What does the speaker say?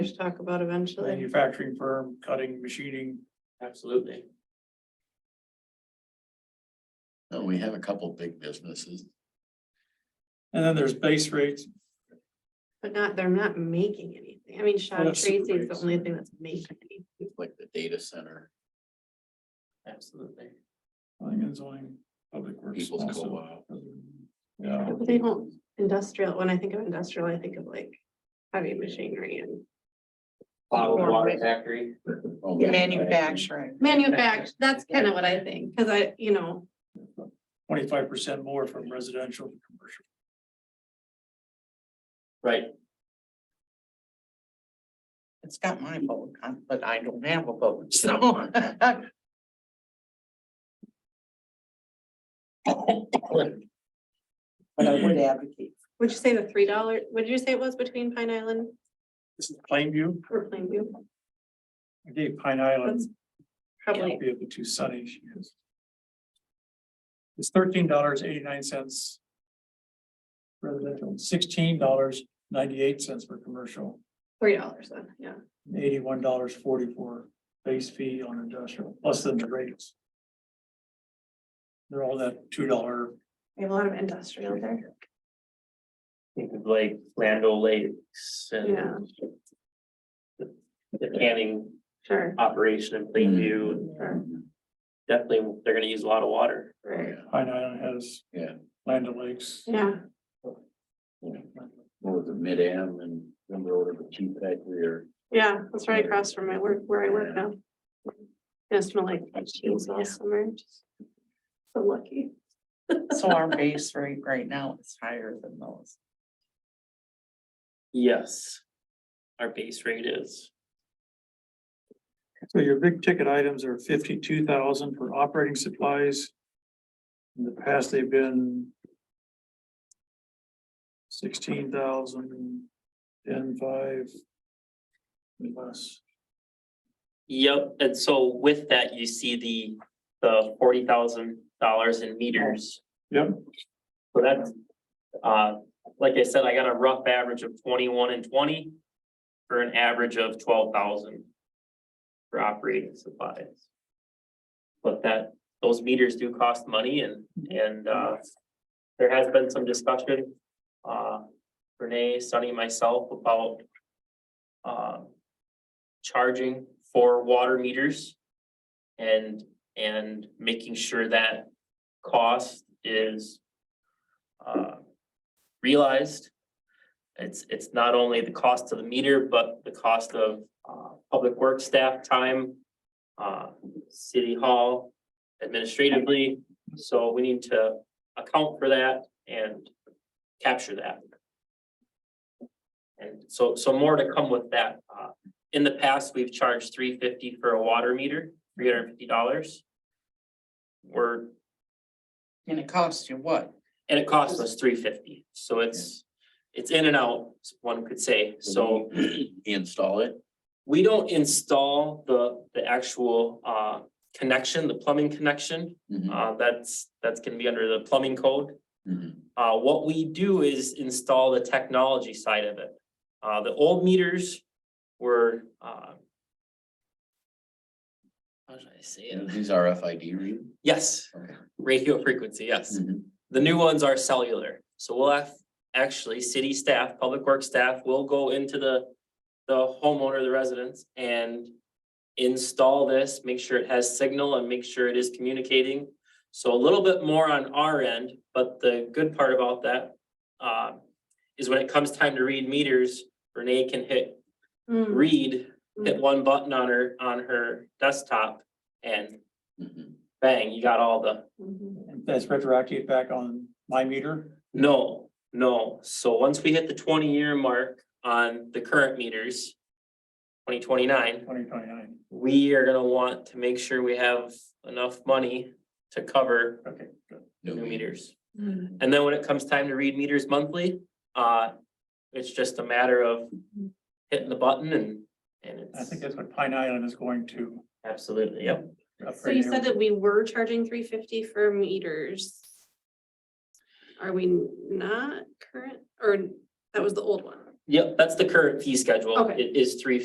just talk about eventually. manufacturing firm, cutting, machining. Absolutely. No, Uh, we have a couple big businesses. And then there's base rates. But not, they're not making anything. I mean, Shaw that's Tracy is the great. only thing that's making anything. It's like the data center, Absolutely. I think it's only public works. people's also. co-op. Yeah, But they don't, industrial, when I think of industrial, I think of like heavy machinery and Bottled Or- water factory. Oh, Manufacturing. manufacture, that's kind of what I think, because I, you know, twenty-five percent more from residential to commercial. Right. It's got my vote, uh, but I don't have a vote, so. But I would advocate. would you say the three dollar, what did you say it was between Pine Island This is Plainview. or Plainview? I gave Pine Island. That's Probably, Be of the two sunny she is. It's thirteen dollars eighty-nine cents. Residential, sixteen dollars ninety-eight cents for commercial, three dollars then, yeah. eighty-one dollars forty-four base fee on industrial, plus then the rates. They're all that two dollar We have a lot of industrial there. Think of like Lando Lakes Yeah. and. the- The canning Sure, operation in Plainview, sure, definitely, they're gonna use a lot of water. right, Pine Island has. Yeah. Land O'Lakes. yeah, What was it, Mid-Am and remember over the cheap factory or? yeah, that's right across from my work, where I work now. Gonna smell like cheese all summer, just so lucky. So our base rate right now is higher than those. Yes. Our base rate is. So your big ticket items are fifty-two thousand for operating supplies. In the past, they've been. Sixteen thousand, ten, five. and Less, Yep, and so with that, you see the, the forty thousand dollars in meters. Yep. So that's, uh, like I said, I got a rough average of twenty-one and twenty for an average of twelve thousand for operating supplies. But that, those meters do cost money and, and, uh, there has been some discussion, uh, Renee, Sunny, myself about, uh, charging for water meters. And, and making sure that cost is. uh, Realized. It's, it's not only the cost of the meter, but the cost of, uh, public work staff time. Uh, city hall administratively, so we need to account for that and capture that. And so, so more to come with that, uh, in the past, we've charged three fifty for a water meter, three hundred and fifty dollars. We're, And it costs you what? and it costs us three fifty, so it's, it's in and out, one could say, Mm-hmm. so. Install it, We don't install the, the actual, uh, connection, the plumbing connection, Mhm, uh, that's, that's gonna be under the plumbing code. mhm. Uh, what we do is install the technology side of it. Uh, the old meters were, uh. How should I say And it? these RFID read. Yes, Okay. radio frequency, yes. Mhm. The new ones are cellular, so we'll have, actually, city staff, public works staff will go into the. The homeowner, the residents, and install this, make sure it has signal and make sure it is communicating. So a little bit more on our end, but the good part about that. Uh, is when it comes time to read meters, Renee can hit Mm. read, hit Mm. one button on her, on her desktop. And Mhm. bang, you got all the Mhm. that's retroactive back on my meter, No, no. So once we hit the twenty year mark on the current meters. Twenty twenty nine, twenty twenty-nine, we are gonna want to make sure we have enough money to cover okay, good. the new meters. Mm. And then when it comes time to read meters monthly, uh, it's just a matter of hitting the button and, and I think that's it's what Pine Island is going to. absolutely, yep. So you upgrade said here. that we were charging three fifty for meters. Are we not current, or that was the old one? Yep, that's the current fee schedule. Okay. It is three